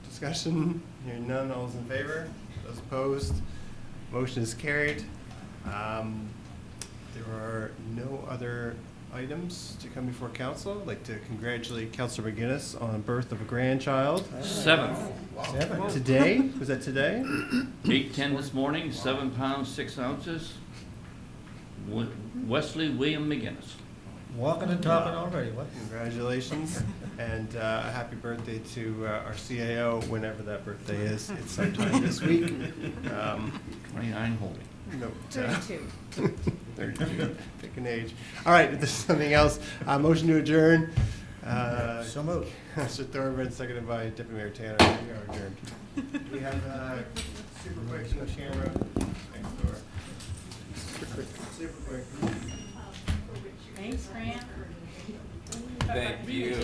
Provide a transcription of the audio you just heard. discussion? Hearing none, all those in favor? Those opposed? Motion is carried. Um, There are no other items to come before council. I'd like to congratulate Councilor McGinnis on birth of a grandchild Seven, today. Was that today? eight ten this morning, seven pounds, six ounces. Wa- Wesley William McGinnis. Walking and talking already, what? Congratulations, and uh, a happy birthday to uh, our CAO, whenever that birthday is. It's sometime this week. Um, Twenty-nine holding. no, uh, Thirty-two. 32. Pick an age. All right, if there's something else, uh, motion to adjourn. Uh, So moved. Mr. Thorburn, seconded by Deputy Mayor Tanner. We are adjourned. We have uh, super quick in the camera next door. Super quick, super quick. Thanks, Fran. Thank you.